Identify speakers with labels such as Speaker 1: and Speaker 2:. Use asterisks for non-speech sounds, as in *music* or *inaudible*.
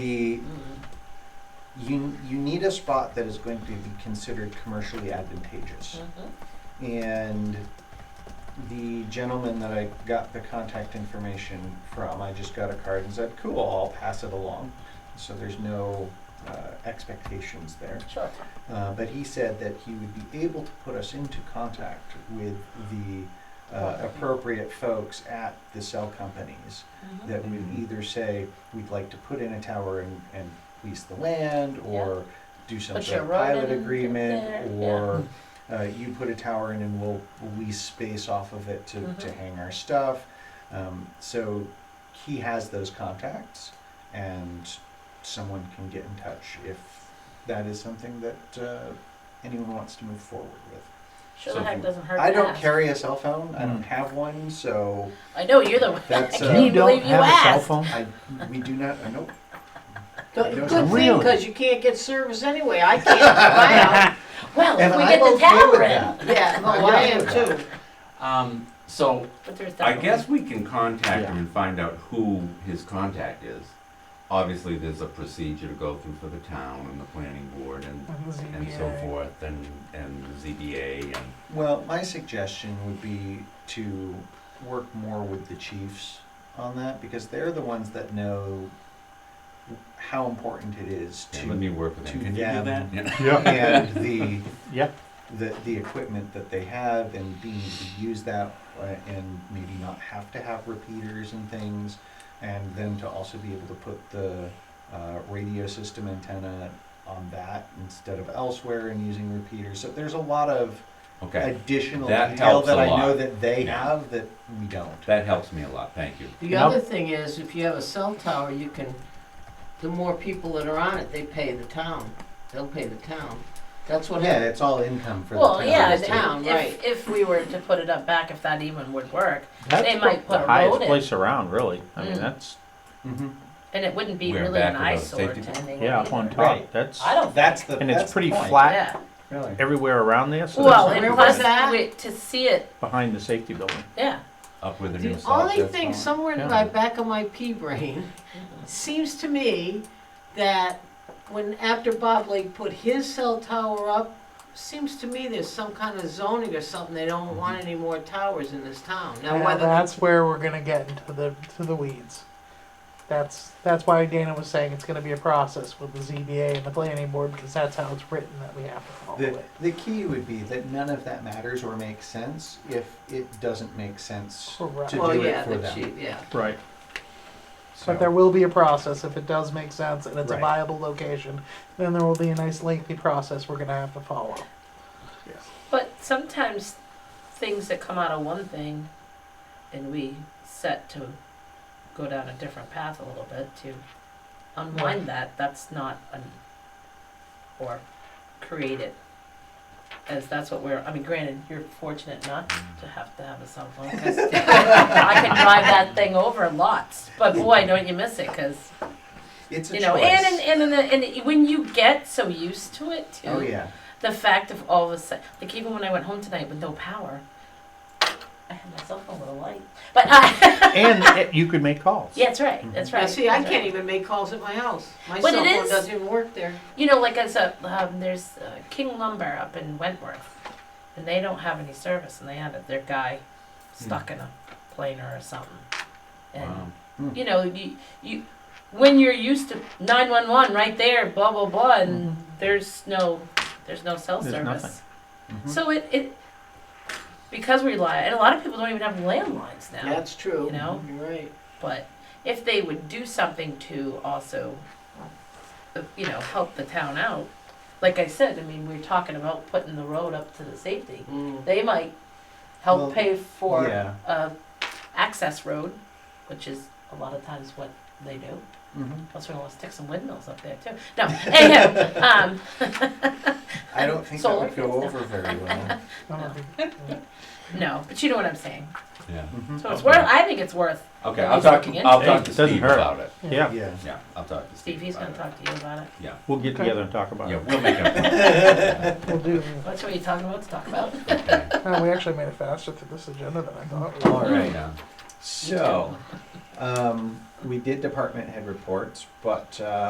Speaker 1: the you you need a spot that is going to be considered commercially
Speaker 2: Mm-hmm.
Speaker 1: advantageous. And the gentleman that I got the contact information from, I just got a card and said, "Cool, I'll pass it along." So there's no uh, expectations there.
Speaker 2: Sure.
Speaker 1: Uh, but he said that he would be able to put us into contact with the uh, appropriate folks at the cell companies
Speaker 2: Mm-hmm.
Speaker 1: that would
Speaker 3: Mhm.
Speaker 1: either say, we'd like to put in a tower and, and lease the land, or do some
Speaker 2: Put
Speaker 1: sort
Speaker 2: your
Speaker 1: of
Speaker 2: road
Speaker 1: pilot
Speaker 2: in there,
Speaker 1: agreement,
Speaker 2: yeah. Mm-hmm.
Speaker 1: or uh, you put a tower in and we'll we'll lease space off of it to, to
Speaker 2: Mhm.
Speaker 1: hang our stuff. Um, so he has those contacts, and someone can get in touch if that is something that uh, anyone wants to move forward with.
Speaker 2: Sure,
Speaker 1: So
Speaker 2: the heck
Speaker 1: you-
Speaker 2: doesn't hurt
Speaker 1: I
Speaker 2: to
Speaker 1: don't
Speaker 2: ask.
Speaker 1: carry a cell phone. I don't
Speaker 3: Mm.
Speaker 1: have one, so
Speaker 2: I know you're the one.
Speaker 1: That's,
Speaker 2: I
Speaker 1: uh,
Speaker 2: can't
Speaker 1: You
Speaker 2: even believe you asked.
Speaker 3: phone?
Speaker 1: I we do not. Uh, nope.
Speaker 4: Good
Speaker 1: No,
Speaker 4: good
Speaker 1: it's
Speaker 4: thing,
Speaker 3: really-
Speaker 4: because you can't get service anyway, I can't, *laughs* wow,
Speaker 2: Well,
Speaker 1: And
Speaker 2: if we
Speaker 1: I'm
Speaker 2: get the
Speaker 1: okay with
Speaker 2: tower
Speaker 1: that.
Speaker 2: in,
Speaker 4: yeah, no, I am too.
Speaker 3: Um, so
Speaker 2: but there's
Speaker 5: I
Speaker 2: definitely.
Speaker 5: guess we can contact him
Speaker 3: Yeah.
Speaker 5: and find out who his contact is. Obviously, there's a procedure to go through for the town and the planning board and, and so forth and, and the ZBA and,
Speaker 1: Well, my suggestion would be to work more with the chiefs on that because they're the ones that know how important it is
Speaker 5: and let me
Speaker 1: to
Speaker 5: work with him.
Speaker 1: to
Speaker 5: Can you do that?
Speaker 1: them.
Speaker 5: Yeah.
Speaker 3: *laughs* yeah,
Speaker 1: and the
Speaker 3: yeah.
Speaker 1: the the equipment that they have and being able to use that uh, and maybe not have to have repeaters and things and then to also be able to put the uh, radio system antenna on that instead of elsewhere and using repeaters so there's a lot of
Speaker 5: *laughs* Okay,
Speaker 1: additional
Speaker 5: That
Speaker 1: detail
Speaker 5: helps
Speaker 1: that
Speaker 5: a
Speaker 1: I know
Speaker 5: lot.
Speaker 1: that they
Speaker 5: Yeah.
Speaker 1: have that we don't.
Speaker 5: that helps me a lot, thank you.
Speaker 4: The
Speaker 3: Now-
Speaker 4: other thing is, if you have a cell tower, you can, the more people that are on it, they pay the town, they'll pay the town, that's what
Speaker 1: yeah,
Speaker 4: happened.
Speaker 1: it's all income for
Speaker 2: Well,
Speaker 1: the town.
Speaker 2: yeah,
Speaker 4: the
Speaker 2: if-
Speaker 4: town, right.
Speaker 2: if, if we were to put it up back, if that even would work,
Speaker 3: That's
Speaker 2: They might put
Speaker 3: the
Speaker 2: a
Speaker 3: highest
Speaker 2: road in.
Speaker 3: place around, really. I mean,
Speaker 2: Mm.
Speaker 3: that's
Speaker 1: hmm
Speaker 2: and it wouldn't be
Speaker 5: We're
Speaker 2: really
Speaker 5: back
Speaker 2: an
Speaker 5: with our
Speaker 2: eyesore
Speaker 5: safety-
Speaker 2: to anyone.
Speaker 3: yeah, up on
Speaker 2: either.
Speaker 3: top.
Speaker 1: Right.
Speaker 3: That's
Speaker 2: I don't.
Speaker 1: That's the
Speaker 3: And it's
Speaker 1: that's the
Speaker 3: pretty
Speaker 1: point,
Speaker 3: flat.
Speaker 2: Yeah.
Speaker 1: Really.
Speaker 3: everywhere around there. So
Speaker 2: Well,
Speaker 3: that's
Speaker 2: and
Speaker 4: Where
Speaker 2: plus
Speaker 4: was that?
Speaker 2: we- to see it,
Speaker 3: behind the safety building.
Speaker 2: yeah.
Speaker 5: Up with the new
Speaker 4: The
Speaker 5: salt.
Speaker 4: only thing, somewhere in
Speaker 3: Yeah.
Speaker 4: my back of my pea *laughs* brain, seems to me that when, after Bob Lake put his cell tower up, seems to me there's some kind of zoning or something, they don't want any more towers in this town. Now,
Speaker 6: Now
Speaker 4: whether,
Speaker 6: that's where we're gonna get into the to the weeds. That's that's why Dana was saying it's gonna be a process with the ZBA and the planning board because that's how it's written that we have to follow
Speaker 1: The,
Speaker 6: it.
Speaker 1: the key would be that none of that matters or makes sense if it doesn't make sense.
Speaker 6: Correct.
Speaker 1: to
Speaker 4: well,
Speaker 1: do it
Speaker 4: yeah,
Speaker 1: for
Speaker 4: the
Speaker 1: them.
Speaker 4: chief, yeah.
Speaker 3: Right.
Speaker 1: So,
Speaker 2: *laughs*
Speaker 6: But there will be a process if it does make sense and it's
Speaker 1: Right.
Speaker 6: a viable location. Then there will be a nice lengthy process we're gonna have to follow.
Speaker 2: But sometimes things that come out of one thing and we set to go down a different path a little bit to unwind that, that's not an, or create it. As that's what we're, I mean, granted, you're fortunate not to have to have a cell phone 'cause
Speaker 1: *laughs*
Speaker 2: I can drive that thing over lots, but boy, don't you miss it because,
Speaker 1: it's a
Speaker 2: you know,
Speaker 1: choice.
Speaker 2: and, and, and, and, and when you get so used to it too
Speaker 1: oh yeah,
Speaker 2: the fact of all of a sudden, like even when I went home tonight with no power, I had my cell phone with a light. But I, *laughs*
Speaker 3: and it, you could make calls.
Speaker 2: yeah, that's right. That's right.
Speaker 4: Now, see, I
Speaker 2: that's
Speaker 4: can't
Speaker 2: right.
Speaker 4: even make calls at my house. My
Speaker 2: But
Speaker 4: cell
Speaker 2: it
Speaker 4: phone
Speaker 2: is-
Speaker 4: doesn't even work there.
Speaker 2: You know, like as a um, there's uh, King Lumber up in Wentworth, and they don't have any service, and they had their guy
Speaker 3: Hmm.
Speaker 2: stuck in a planer or something, and
Speaker 5: Wow.
Speaker 2: you know you you when you're used to 911 right there, blah blah blah, and there's no there's no cell
Speaker 3: Mm-hmm. There's
Speaker 2: service.
Speaker 3: nothing.
Speaker 1: Mhm.
Speaker 2: So it, it because we rely, and a lot of people don't even have landlines now.
Speaker 4: That's true.
Speaker 2: You know?
Speaker 4: You're right.
Speaker 2: But if they would do something to also, uh, you know, help the town out, like I said, I mean, we're talking about putting the road up to the safety.
Speaker 4: Mm.
Speaker 2: They might help
Speaker 1: Well,
Speaker 2: pay for
Speaker 1: yeah.
Speaker 2: a access road, which is a lot of times what they do.
Speaker 1: Mhm.
Speaker 2: Plus, we're gonna stick some windmills up there too. No, *laughs* anyhow, um,
Speaker 1: I don't think
Speaker 2: Solar
Speaker 1: that would go
Speaker 2: panels,
Speaker 1: over very
Speaker 2: *laughs*
Speaker 1: well.
Speaker 6: I don't think-
Speaker 2: no, but you know what I'm saying.
Speaker 5: Yeah,
Speaker 1: Mhm.
Speaker 2: So it's worth. I think it's worth
Speaker 5: okay, I'll talk, to- I'll talk
Speaker 3: It
Speaker 5: to
Speaker 3: doesn't
Speaker 5: Steve
Speaker 3: hurt.
Speaker 5: about it.
Speaker 3: Yeah.
Speaker 1: Yeah.
Speaker 5: Yeah, I'll talk to Steve.
Speaker 2: Steve, he's gonna
Speaker 5: about it.
Speaker 2: talk to you about it.
Speaker 5: Yeah,
Speaker 3: We'll get together and talk about
Speaker 5: yeah,
Speaker 3: it.
Speaker 5: we'll make a plan.
Speaker 1: *laughs*
Speaker 6: We'll do. *laughs*
Speaker 2: What are you talking about to talk about?
Speaker 5: Okay.
Speaker 6: No, we actually made it faster through this agenda than I thought. we
Speaker 1: All
Speaker 6: would.
Speaker 1: right.
Speaker 5: Yeah.
Speaker 1: So, um, we did department head reports, but uh,